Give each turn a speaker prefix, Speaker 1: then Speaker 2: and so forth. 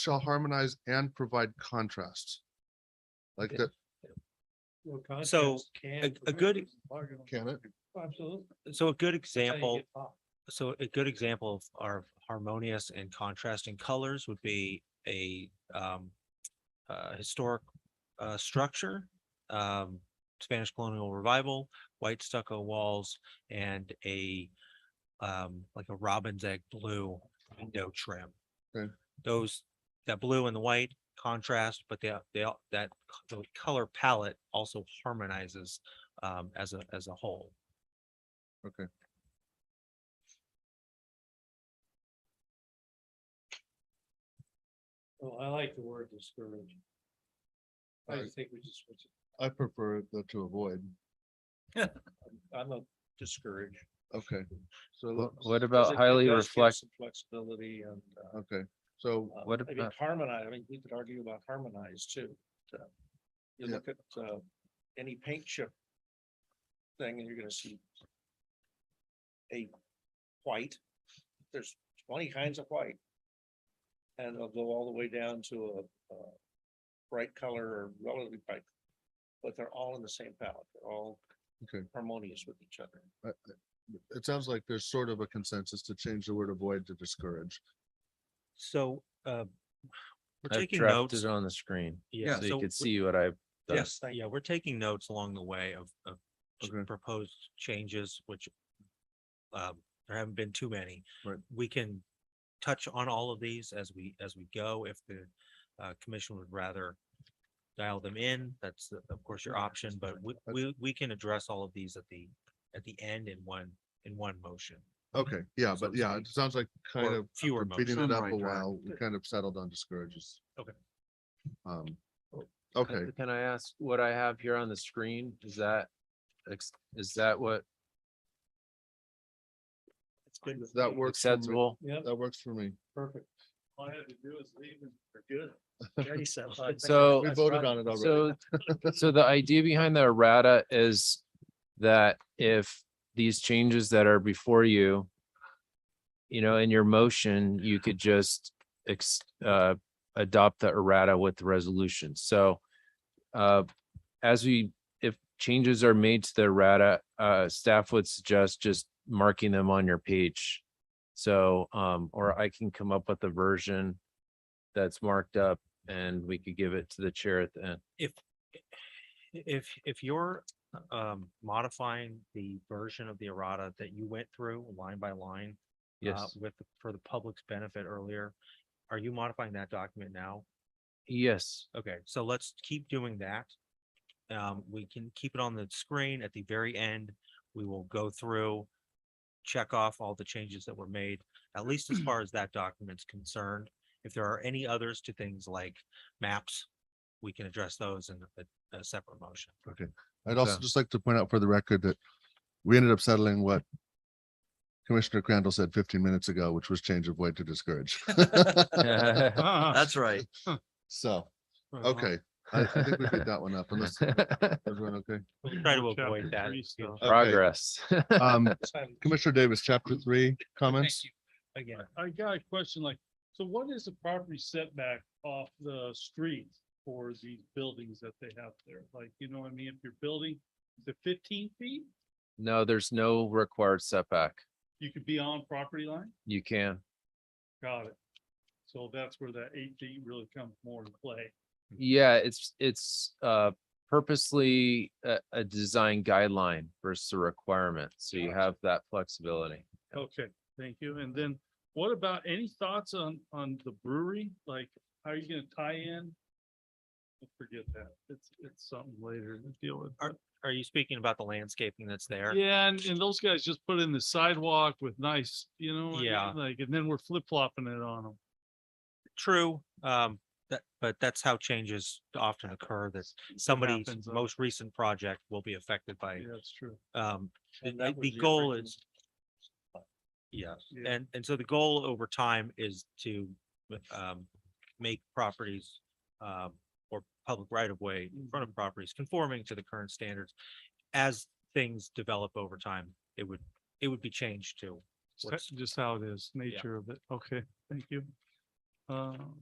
Speaker 1: shall harmonize and provide contrast. Like
Speaker 2: Okay.
Speaker 1: that,
Speaker 2: Well,
Speaker 3: So,
Speaker 2: contrast can
Speaker 3: a- a
Speaker 2: prevent
Speaker 3: good-
Speaker 2: this bargain.
Speaker 1: can it?
Speaker 2: Oh, Absolutely.
Speaker 3: So a good
Speaker 2: That's how you
Speaker 3: example,
Speaker 2: get by.
Speaker 3: so a good example of our harmonious and contrasting colors would be a um. Uh, historic uh structure, um, Spanish colonial revival, white stucco walls and a. Um, like a robin's egg blue window trim.
Speaker 1: Okay.
Speaker 3: Those, that blue and the white contrast, but they, they, all- that c- the color palette also harmonizes. Um, as a, as a whole.
Speaker 2: Oh, I like the word discourage. I
Speaker 1: Right.
Speaker 2: think we just, switch it.
Speaker 1: I prefer the to avoid.
Speaker 2: I'm not discouraged.
Speaker 1: Okay, so,
Speaker 4: Wha-
Speaker 1: let's-
Speaker 4: What about highly reflect,
Speaker 2: Flexibility and. uh,
Speaker 1: okay, so,
Speaker 2: uh,
Speaker 4: What
Speaker 2: I mean,
Speaker 4: about-
Speaker 2: harmonize, I mean, we could argue about harmonize too. but, uh, You
Speaker 1: Yeah.
Speaker 2: look at, uh, any paint chip thing and you're gonna see a white, there's twenty kinds of white. And they'll go all the way down to a, uh, bright color or relatively bright, but they're all in the same palette, they're all
Speaker 1: Okay.
Speaker 2: harmonious with each other.
Speaker 1: uh, it sounds like there's sort of a consensus to change the word avoid to discourage.
Speaker 3: So, uh, we're
Speaker 4: I've
Speaker 3: taking
Speaker 4: drafted
Speaker 3: notes.
Speaker 4: it on the screen,
Speaker 3: Yeah,
Speaker 4: so you
Speaker 3: so
Speaker 4: could
Speaker 3: we-
Speaker 4: see what I, done.
Speaker 3: yes,
Speaker 2: Thank
Speaker 3: yeah, we're taking notes along the way of, of ch-
Speaker 1: Okay.
Speaker 3: proposed changes, which um, there haven't been too many.
Speaker 1: Right.
Speaker 3: We can touch on all of these as we, as we go. If the uh, commission would rather dial them in, that's uh, of course your option, but we,
Speaker 1: That's-
Speaker 3: we, we can address all of these at the, at the end in one, in one motion.
Speaker 1: Okay, yeah,
Speaker 3: So
Speaker 1: but
Speaker 3: to
Speaker 1: yeah,
Speaker 3: be-
Speaker 1: it sounds like kind
Speaker 3: or
Speaker 1: of
Speaker 3: fewer
Speaker 1: after beating
Speaker 3: motions.
Speaker 1: it up
Speaker 4: Right,
Speaker 1: a
Speaker 4: right.
Speaker 1: while, we kind of settled on discourages.
Speaker 3: Okay.
Speaker 1: Um, okay,
Speaker 4: Can I ask what I have here on the screen? Is that, ex- is that what
Speaker 2: It's good with
Speaker 1: that
Speaker 2: me.
Speaker 1: works, for me.
Speaker 4: acceptable?
Speaker 2: Yep,
Speaker 1: that works for me.
Speaker 2: perfect. All I had to do is leave and forget it. Jerry said, "Oh, I think
Speaker 4: So-
Speaker 1: We
Speaker 2: that's
Speaker 1: voted
Speaker 2: right."
Speaker 1: on it already.
Speaker 4: So, so the idea behind the errata is that if these changes that are before you, you know, in your motion, you could just ex, uh, adopt the errata with the resolution. So uh, as we, if changes are made to the errata, uh, staff would suggest just marking them on your page. So, um, or I can come up with a version that's marked up and we could give it to the chair at the end.
Speaker 3: If, if you're um, modifying the version of the errata that you went through line by line, uh,
Speaker 4: Yes,
Speaker 3: With, the- for the public's benefit earlier, are you modifying that document now?
Speaker 4: yes,
Speaker 3: Okay, so let's keep doing that. Um, we can keep it on the screen at the very end. We will go through, check off all the changes that were made, at least as far as that document's concerned. If there are any others to things like maps, we can address those in a, a separate motion.
Speaker 1: I'd also
Speaker 4: Okay.
Speaker 1: just like to point out for the record that we ended up settling what Commissioner Crandall said fifteen minutes ago, which was change of weight to discourage.
Speaker 5: That's right.
Speaker 1: So, okay, I I think we picked that one up unless everyone okay.
Speaker 3: We'll Try to avoid that. so-
Speaker 1: Okay.
Speaker 4: Progress.
Speaker 1: Um,
Speaker 2: Time-
Speaker 1: Commissioner Davis, chapter three, comments?
Speaker 3: Again,
Speaker 6: I got a question like, so what is the property setback off the street for these buildings that they have there? Like, you know what I mean? If you're building the fifteen feet,
Speaker 4: No, there's no required setback.
Speaker 6: you could be on property line?
Speaker 4: You can,
Speaker 6: Got it. So that's where that eight feet really comes more into play.
Speaker 4: yeah, it's, it's uh purposely a, a design guideline versus a requirement. So you have that flexibility.
Speaker 6: Okay, thank you. And then what about any thoughts on, on the brewery? Like, how are you gonna tie in? Forget that. It's, it's something later to deal with. but-
Speaker 3: are you speaking about the landscaping that's there?
Speaker 6: Yeah, and, and those guys just put in the sidewalk with nice, you know, what I mean?
Speaker 3: Yeah.
Speaker 6: like, and then we're flip flopping it on them.
Speaker 3: True, um, that, but that's how changes often occur, that somebody's
Speaker 6: happens, uh,
Speaker 3: most recent project will be affected by,
Speaker 6: Yeah, that's true.
Speaker 3: um, the-
Speaker 2: And that
Speaker 3: the,
Speaker 2: was
Speaker 3: the
Speaker 2: the
Speaker 3: goal
Speaker 2: original-
Speaker 3: is. Yeah,
Speaker 6: Yeah.
Speaker 3: and, and so the goal over time is to, um, make properties, um, or public right of way in front of
Speaker 2: Mm-hmm.
Speaker 3: properties conforming to the current standards. As things develop over time, it would, it would be changed to
Speaker 6: It's
Speaker 3: what's
Speaker 6: Just how it is, nature of it. Okay, thank you. Um,